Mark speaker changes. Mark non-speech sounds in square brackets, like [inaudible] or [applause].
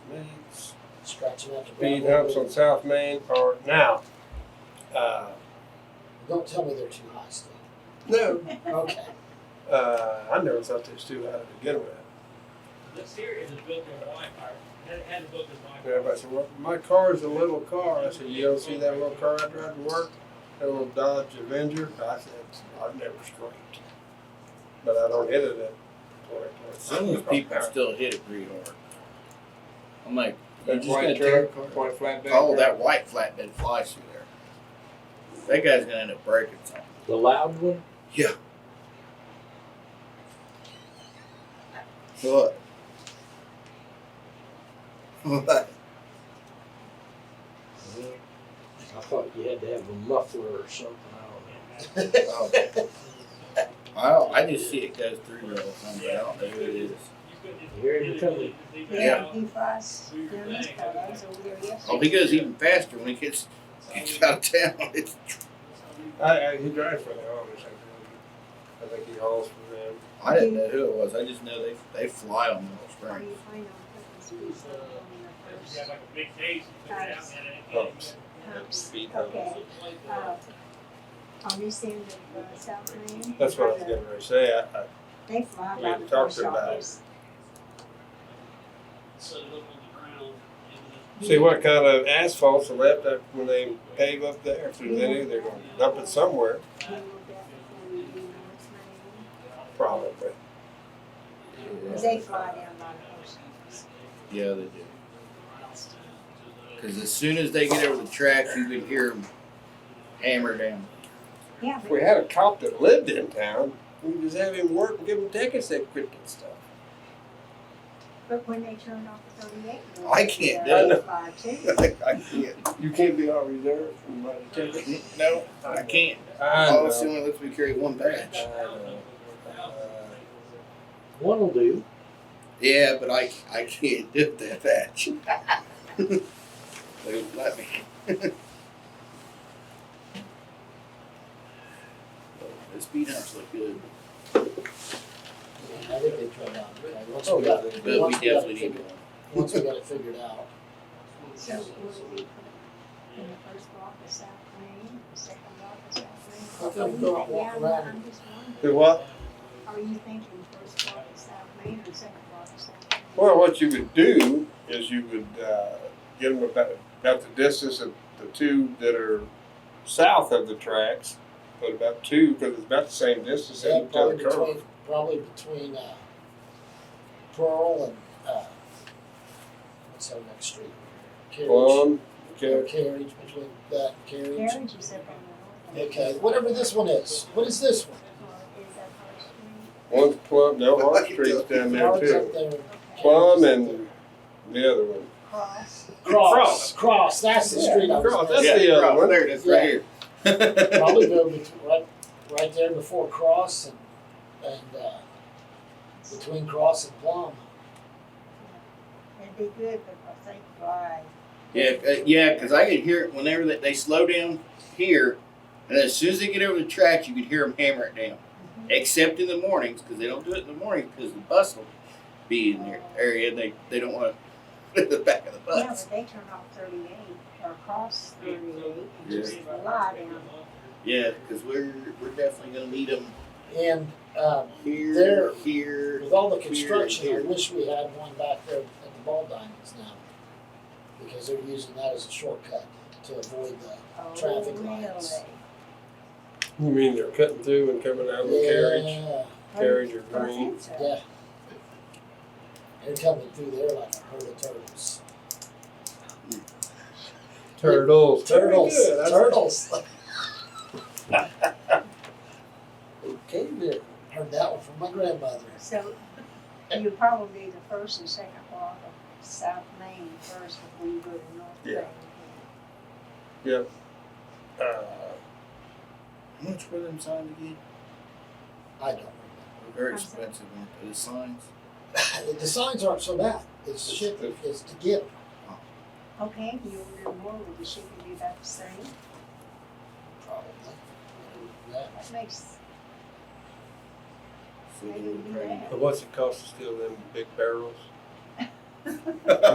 Speaker 1: scratching out the
Speaker 2: speed
Speaker 1: gravel.
Speaker 2: humps on South Main are now. Uh,
Speaker 1: Don't tell me they're too high, Steve.
Speaker 2: no,
Speaker 1: Okay.
Speaker 2: uh, I never thought this too high to begin with.
Speaker 3: The series is built in Y, or had, had it built in Y.
Speaker 2: And everybody said, well, my car is a little car. I said, you don't see that little car I drive to work? That little Dodge Avenger? I said, I've never screamed. But I don't hit it at twenty,
Speaker 4: Some
Speaker 2: twenty-six.
Speaker 4: of those people still hit it pretty hard. I'm like, you
Speaker 5: That
Speaker 4: just gotta
Speaker 5: white
Speaker 4: tear.
Speaker 5: truck, white flatbed.
Speaker 4: Oh, that white flatbed flies through there. That guy's gonna end up breaking something.
Speaker 6: The loud one?
Speaker 4: [laughs] What? What?
Speaker 6: Mm-hmm. I thought you had to have a muffler or something. I
Speaker 4: Oh. I don't, I just see it goes through there all the time, but I don't know who it is.
Speaker 3: You couldn't-
Speaker 6: don't know. Here you come.
Speaker 4: Yeah.
Speaker 7: Yeah, he flies down this part. I was over there
Speaker 4: Oh,
Speaker 7: yesterday.
Speaker 4: he goes even faster when he gets, gets out of town. [laughs] It's,
Speaker 2: I, I, he drives for the Amish, I think. I think he hauls for them.
Speaker 4: I didn't know who it was. I just know they they fly on Mineral
Speaker 7: Are
Speaker 4: Springs.
Speaker 7: you fine on purpose? We still on the
Speaker 3: If
Speaker 7: first
Speaker 3: you have like a big case, you put it out and it-
Speaker 2: Humps.
Speaker 7: humps.
Speaker 2: Speed
Speaker 7: Okay, uh, on this end of uh, South Main.
Speaker 2: That's what I was getting ready to say. I, I,
Speaker 7: They fly
Speaker 2: We
Speaker 7: by
Speaker 2: had
Speaker 7: the
Speaker 2: talked
Speaker 7: post
Speaker 2: about it.
Speaker 7: office.
Speaker 3: Set it up on the ground and then
Speaker 2: see what kind of asphalt's left up when they pave up there. If there's any, they're gonna dump it somewhere,
Speaker 7: We looked at before we do North Main.
Speaker 2: probably.
Speaker 7: Uh, They fly down by the post office.
Speaker 4: Yeah, they do. Because as soon as they get over the tracks, you can hear them hammer down.
Speaker 7: Yeah,
Speaker 2: If
Speaker 7: but
Speaker 2: we had a cop that lived in town, we could just have him work and give him tickets that quit that stuff.
Speaker 7: But when they turned off the thirty-eight.
Speaker 4: I can't
Speaker 2: do
Speaker 7: They
Speaker 2: it.
Speaker 7: fly
Speaker 2: [laughs]
Speaker 7: too.
Speaker 4: I can't.
Speaker 2: You can't be on reserve and buy the ticket.
Speaker 4: No, I can't.
Speaker 2: I
Speaker 4: All the only lets me carry one batch.
Speaker 6: One'll do.
Speaker 4: Yeah, but I, I can't do that [laughs] batch. they would let me. the speed humps look good.
Speaker 1: Yeah, I think they tried out. Okay, Once
Speaker 2: Oh,
Speaker 1: we got,
Speaker 4: But we
Speaker 1: once we got it
Speaker 4: definitely need
Speaker 1: figured,
Speaker 4: one.
Speaker 1: once we got it figured
Speaker 2: [laughs]
Speaker 1: out.
Speaker 7: So will we put in the first block of South Main, the second block of
Speaker 1: I
Speaker 7: South Main?
Speaker 1: think we'll walk
Speaker 7: Yeah,
Speaker 1: around.
Speaker 7: I'm just wondering.
Speaker 2: Do what?
Speaker 7: Are you thinking first block of South Main or second block of South Main?
Speaker 2: Well, what you would do is you would uh, get them about, about the distance of the two that are south of the tracks, but about two because it's about the same distance
Speaker 1: Yeah,
Speaker 2: as the
Speaker 1: probably
Speaker 2: other curve.
Speaker 1: between, probably between, uh, Pearl and, uh, what's that next street? Carriage.
Speaker 2: Plum,
Speaker 1: Or
Speaker 2: okay.
Speaker 1: Carriage, between that and carriage.
Speaker 7: Carriage is up on the north.
Speaker 1: Okay, whatever this one is. What is this one?
Speaker 7: Or is that First Street?
Speaker 2: one's Plum, no, Hart Street's down there
Speaker 1: Carriage
Speaker 2: too.
Speaker 1: up there.
Speaker 7: Okay.
Speaker 2: Plum and the other one.
Speaker 7: Cross.
Speaker 1: Cross, cross, that's the
Speaker 2: Yeah,
Speaker 1: street I was
Speaker 2: Cross,
Speaker 1: thinking.
Speaker 2: That's the uh, other
Speaker 4: cross.
Speaker 2: one.
Speaker 4: There it is,
Speaker 2: [laughs]
Speaker 4: right here.
Speaker 1: Probably go between, right, right there before Cross and, and, uh, between Cross and Plum.
Speaker 7: It'd be good because they fly.
Speaker 4: Yeah, uh, yeah, because I could hear it whenever they, they slow down here, and as soon as they get over the tracks, you could hear them hammer it down.
Speaker 1: Mm-hmm.
Speaker 4: Except in the mornings, because they don't do it in the mornings because the bus will be in their area. and They they don't [laughs] want to the back of the
Speaker 7: Yeah,
Speaker 4: bus.
Speaker 7: but they turn off thirty-eight or cross thirty-eight and just
Speaker 3: Yeah.
Speaker 7: fly down.
Speaker 4: Yeah, because we're we're definitely gonna need them
Speaker 1: And, um,
Speaker 4: here,
Speaker 1: There.
Speaker 4: here.
Speaker 1: With all the
Speaker 4: here,
Speaker 1: construction, I
Speaker 4: here.
Speaker 1: wish we had one back there at the Ball Diamonds now, because they're using that as a shortcut to avoid the,
Speaker 7: Oh,
Speaker 1: Traffic
Speaker 7: really?
Speaker 1: lights.
Speaker 2: You mean they're cutting through and coming out of the carriage,
Speaker 1: Yeah,
Speaker 2: carriage or
Speaker 7: I
Speaker 2: green?
Speaker 7: think so.
Speaker 1: yeah. They're coming through there like a herd of turtles.
Speaker 2: Turtles.
Speaker 1: Turtles,
Speaker 2: Very good. That's-
Speaker 1: turtles.
Speaker 2: [laughs] Okay, then.
Speaker 1: Heard that one from my grandmother.
Speaker 7: So you probably the first and second block of South Main first before you go to North
Speaker 2: Yeah.
Speaker 7: Main.
Speaker 2: Uh,
Speaker 4: How much were them signs again?
Speaker 1: I don't
Speaker 4: They're very expensive, weren't they? The signs.
Speaker 1: remember. [coughs] The signs aren't so bad. It's the shit that is to get. 'em.
Speaker 7: Okay, if you order more, will the shipping be about the same?
Speaker 1: Probably. Yeah.
Speaker 7: That makes,
Speaker 4: So they were
Speaker 7: Maybe we
Speaker 4: praying.
Speaker 2: [laughs] But what's it cost to steal them big barrels?